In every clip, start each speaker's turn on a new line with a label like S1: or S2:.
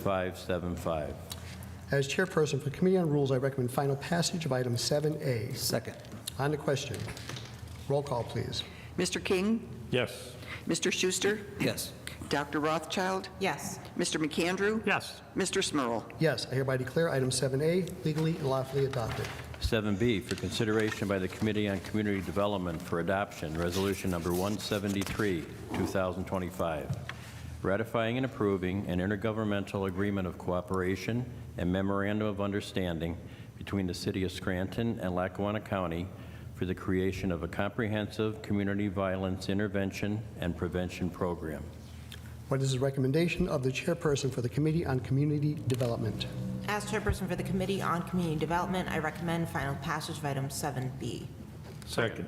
S1: 7575.
S2: As chairperson for Committee on Rules, I recommend final passage of item 7A.
S3: Second.
S2: On the question, roll call, please.
S4: Mr. King,
S5: Yes.
S4: Mr. Schuster,
S3: Yes.
S4: Dr. Rothschild,
S6: yes,
S4: Mr. McAndrew,
S5: Yes.
S4: Mr. Smurl.
S2: Yes, I hereby declare item 7A legally and lawfully adopted.
S1: 7B for consideration by the Committee on Community Development for Adoption, Resolution Number 173, 2025, ratifying and approving an intergovernmental agreement of cooperation and memorandum of understanding between the City of Scranton and Lackawanna County for the creation of a comprehensive community violence intervention and prevention program.
S2: What is the recommendation of the chairperson for the Committee on Community Development?
S6: as chairperson for the Committee on Community Development, I recommend final passage of item 7B.
S5: Second.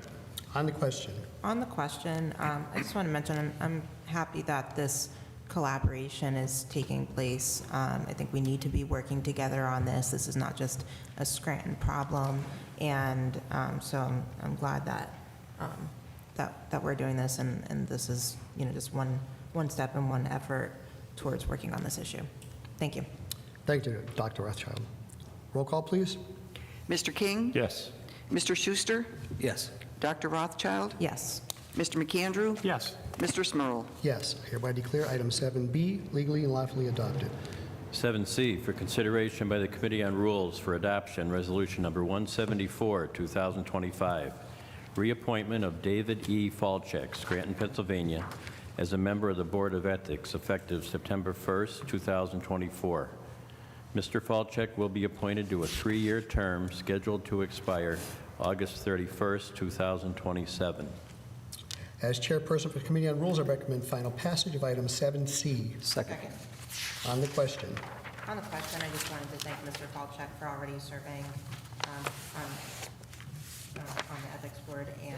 S2: On the question,
S6: On the question, um, I just want to mention, I'm- I'm happy that this collaboration is taking place. Um, I think we need to be working together on this. This is not just a Scranton problem, and um, so I'm- I'm glad that, um, that that we're doing this, and and this is, you know, just one, one step and one effort towards working on this issue. Thank you.
S2: thank you, Dr. Rothschild. Roll call, please.
S4: Mr. King,
S5: Yes.
S4: Mr. Schuster,
S3: Yes.
S4: Dr. Rothschild,
S6: Yes.
S4: Mr. McAndrew,
S5: Yes.
S4: Mr. Smurl.
S2: Yes, I hereby declare item 7B legally and lawfully adopted.
S1: 7C for consideration by the Committee on Rules for Adoption, Resolution Number 174, 2025, reappointment of David E. Falchek, Scranton, Pennsylvania, as a member of the Board of Ethics effective September 1st, 2024. Mr. Falchek will be appointed to a three-year term scheduled to expire August 31st, 2027.
S2: As chairperson for Committee on Rules, I recommend final passage of item
S3: Second.
S2: 7C.
S6: Second.
S2: On the question,
S6: On the question, I just wanted to thank Mr. Falchek for already serving um, on uh, on the Ethics Board and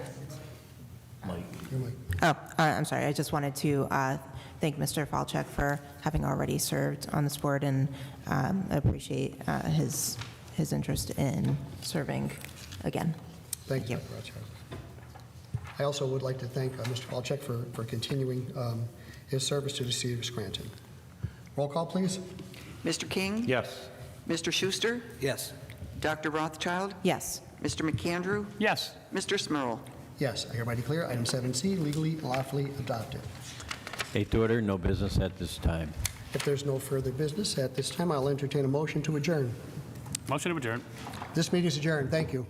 S6: uh, Oh, I- I'm sorry, I just wanted to uh, thank Mr. Falchek for having already served on this board, and um, I appreciate uh, his, his interest in serving again.
S2: thank you, Dr. Rothschild. I also would like to thank uh, Mr. Palchek for for continuing um, his service to the city of Scranton. Roll call, please.
S4: Mr. King,
S5: Yes.
S4: Mr. Schuster,
S3: Yes.
S4: Dr. Rothschild,
S6: Yes.
S4: Mr. McAndrew,
S5: Yes.
S4: Mr. Smurl.
S2: Yes, I hereby declare item 7C legally and lawfully adopted.
S1: Eighth order, no business at this time.
S2: If there's no further business, at this time, I'll entertain a motion to adjourn.
S5: Motion to adjourn.
S2: This meeting is adjourned. Thank you.